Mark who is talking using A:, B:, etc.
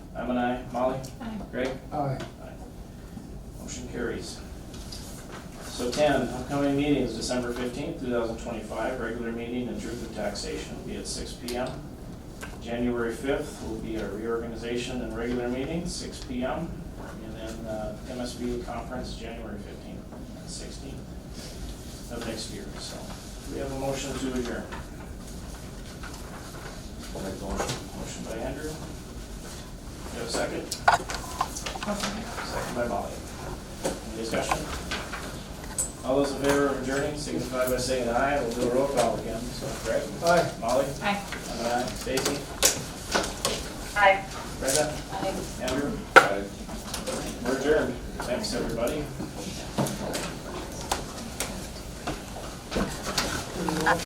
A: So ten, upcoming meetings, December fifteenth, two thousand twenty-five, regular meeting and truth and taxation will be at six P M. January fifth will be our reorganization and regular meeting, six P M. And then uh, MSBU conference, January fifteenth and sixteenth of next year, so. We have a motion to adjourn.
B: I'll make the motion.
A: Motion by Andrew. You have a second? Second by Molly. Any discussion? All those in favor of adjourning signify by saying aye, we'll do a roll call again, so Greg? Aye. Molly?
C: Aye.
A: I'm an aye. Stacy?
C: Aye.
A: Brenda?
C: Aye.
A: Andrew?
B: Aye.
A: We're adjourned. Thanks, everybody.